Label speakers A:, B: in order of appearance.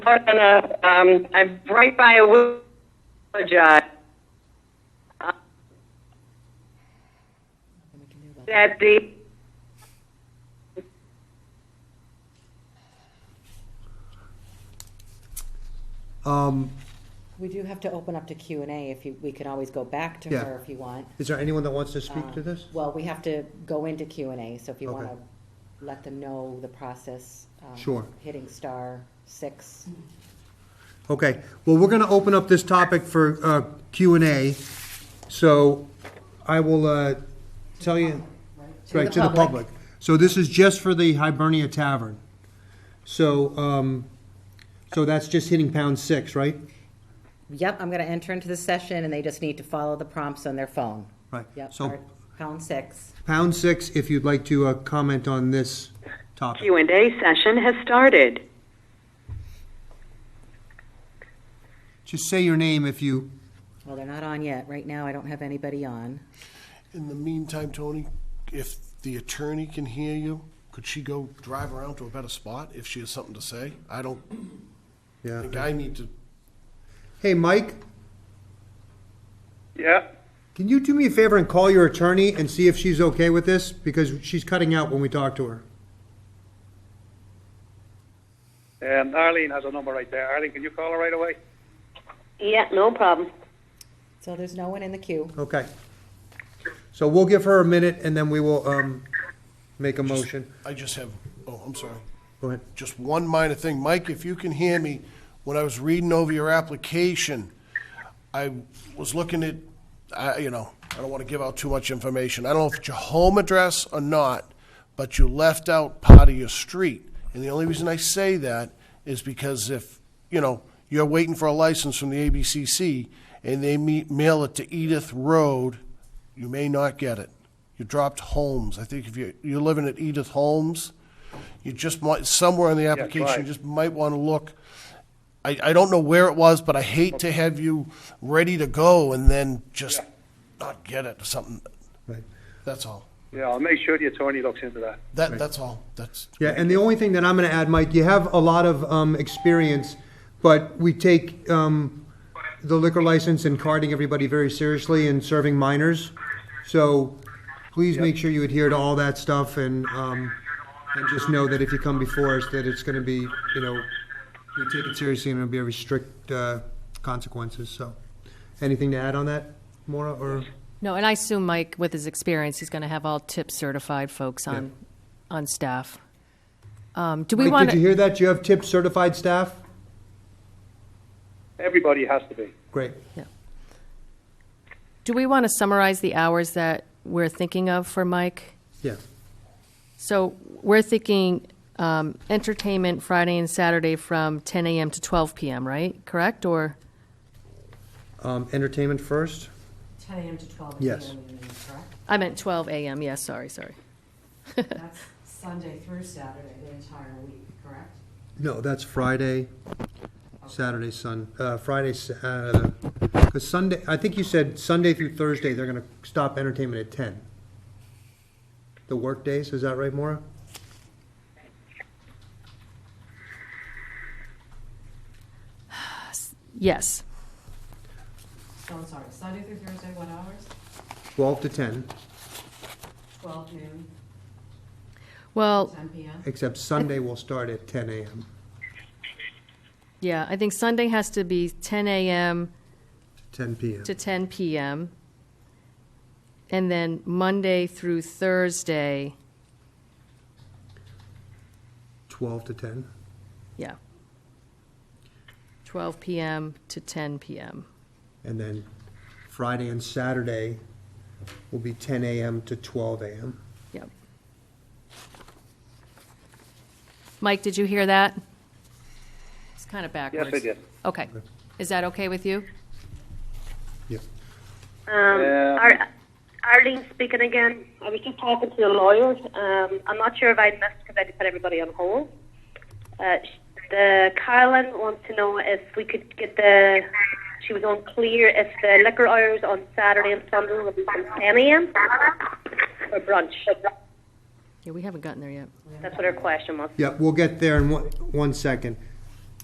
A: More than a, um, I'm right by a wood. Apologize. Uh, That the,
B: Um,
C: We do have to open up to Q and A if you, we can always go back to
B: Yeah.
C: her if you want.
B: is there anyone that wants to speak
C: Uh,
B: to this?
C: Well, we have to go into Q and A, so if you
B: Okay.
C: want to let them know the process. um,
B: Sure.
C: Hitting star six.
B: Okay, well, we're going to open up this topic for uh, Q and A, so I will uh, tell you.
C: To
B: Right,
C: the
B: to the
C: public.
B: public. So this is just for the Hibernia Tavern. So, um, so that's just hitting pound six, right?
C: Yep, I'm going to enter into the session and they just need to follow the prompts on their phone.
B: Right.
C: Yep,
B: So
C: or pound six.
B: pound six, if you'd like to uh, comment on this topic.
A: Q&A session has started.
B: Just say your name if you,
C: Well, they're not on yet. Right now, I don't have anybody on.
D: In the meantime, Tony, if the attorney can hear you, could she go drive around to a better spot if she has something to say? I don't
B: yeah.
D: think I need to.
B: Hey, Mike,
E: Yeah,
B: can you do me a favor and call your attorney and see if she's okay with this? Because she's cutting out when we talk to her.
E: and Arlene has a number right there. Arlene, can you call her right away?
A: Yeah, no problem.
C: So there's no one in the queue.
B: Okay. So we'll give her a minute and then we will, um, make a motion.
D: I just have, oh, I'm sorry.
B: Go ahead.
D: Just one minor thing. Mike, if you can hear me, when I was reading over your application, I was looking at, I, you know, I don't want to give out too much information. I don't know if it's your home address or not, but you left out part of your street. And the only reason I say that is because if, you know, you're waiting for a license from the ABCC and they me- mail it to Edith Road, you may not get it. You dropped Holmes. I think if you, you're living at Edith Holmes, you just might, somewhere in the application,
E: right.
D: you just might want to look. I, I don't know where it was, but I hate to have you ready to go and then just not get it or something.
B: Right.
D: That's all.
E: Yeah, I'll make sure the attorney looks into that.
D: That, that's all. That's,
B: Yeah, and the only thing that I'm going to add, Mike, you have a lot of um, experience, but we take um, the liquor license and carding everybody very seriously and serving minors. So please make sure you adhere to all that stuff and, um, and just know that if you come before us, that it's going to be, you know, we take it seriously and it'll be very strict uh, consequences, so. Anything to add on that, Maura, or?
F: No, and I assume Mike, with his experience, he's going to have all tip certified folks on on staff. Um, do we
B: Mike,
F: want
B: Did you
F: to?
B: hear that? Do you have tip certified staff?
E: Everybody has to be.
B: Great.
F: Do we want to summarize the hours that we're thinking of for Mike?
B: Yeah,
F: So we're thinking um, entertainment Friday and Saturday from 10 a.m. to 12 p.m. Right? Correct? Or
B: Um, entertainment first?
C: Ten AM to twelve
B: Yes.
C: correct?
F: I meant 12 a.m. Yes. sorry. Sorry.
C: That's Sunday through Saturday, the entire week, correct?
B: No, that's Friday, Saturday, Sun, uh, Friday, because Sunday, I think you said Sunday through Thursday, they're gonna stop entertainment at ten. The work days, is that right, Maura?
F: Yes.
G: So I'm sorry, Sunday through Thursday, what hours?
B: Twelve to ten,
G: Twelve noon,
F: Well,
G: ten PM?
B: except Sunday will start at ten AM.
F: yeah. I think Sunday has to be 10 a.m.
B: 10 PM.
F: to 10 p.m. And then Monday through Thursday,
B: Twelve to ten.
F: yeah, 12 p.m. to 10 p.m.
B: And then Friday and Saturday will be ten AM to twelve AM.
F: Yep. Mike, did you hear that? It's kind of
E: Yes,
F: backwards.
E: I did.
F: Okay. Is that okay with you?
B: Yep.
E: Um,
A: Ar- Arlene speaking again. I was just talking to your lawyer. Um, I'm not sure if I missed because I put everybody on hold. Uh, sh- the Carolyn wants to know if we could get the. She was unclear if the liquor hours on Saturday and Sunday would be from 10 a.m. or brunch.
F: Yeah, we haven't gotten there yet.
A: That's what her question was.
B: Yeah, we'll get there in one, one second.